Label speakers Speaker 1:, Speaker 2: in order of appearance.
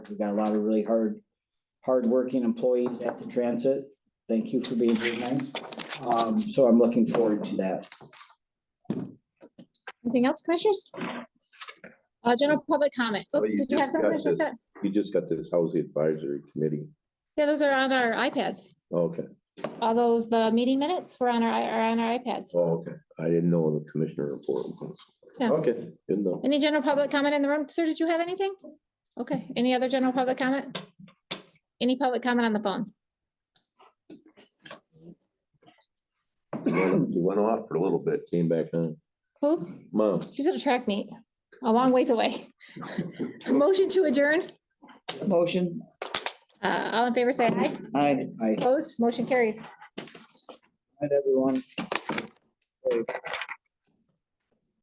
Speaker 1: We got a lot of really hard, hardworking employees at the transit. Thank you for being here tonight. Um, so I'm looking forward to that.
Speaker 2: Anything else, commissioners? Uh, general public comment.
Speaker 3: Well,
Speaker 2: Oops,
Speaker 3: you
Speaker 2: did you have something?
Speaker 3: discussed
Speaker 2: Commissioner Scott?
Speaker 3: We just got this housing advisory committee.
Speaker 2: Yeah, those are on our iPads.
Speaker 3: Oh, Okay,
Speaker 2: All those, the meeting minutes were on our, i- are on our iPads.
Speaker 3: oh, okay. I didn't know the commissioner report. was.
Speaker 2: Yeah.
Speaker 3: Okay, good enough.
Speaker 2: Any general public comment in the room? Sir, did you have anything? Okay, any other general public comment? Any public comment on the phone?
Speaker 3: You went off for a little bit, came back on.
Speaker 2: Who?
Speaker 3: Mom,
Speaker 2: She's at a track meet, a long ways away. Motion to adjourn.
Speaker 1: Motion?
Speaker 2: Uh, all in favor, say aye.
Speaker 1: Aye. Aye.
Speaker 2: Opposed, motion carries.
Speaker 1: Night, everyone.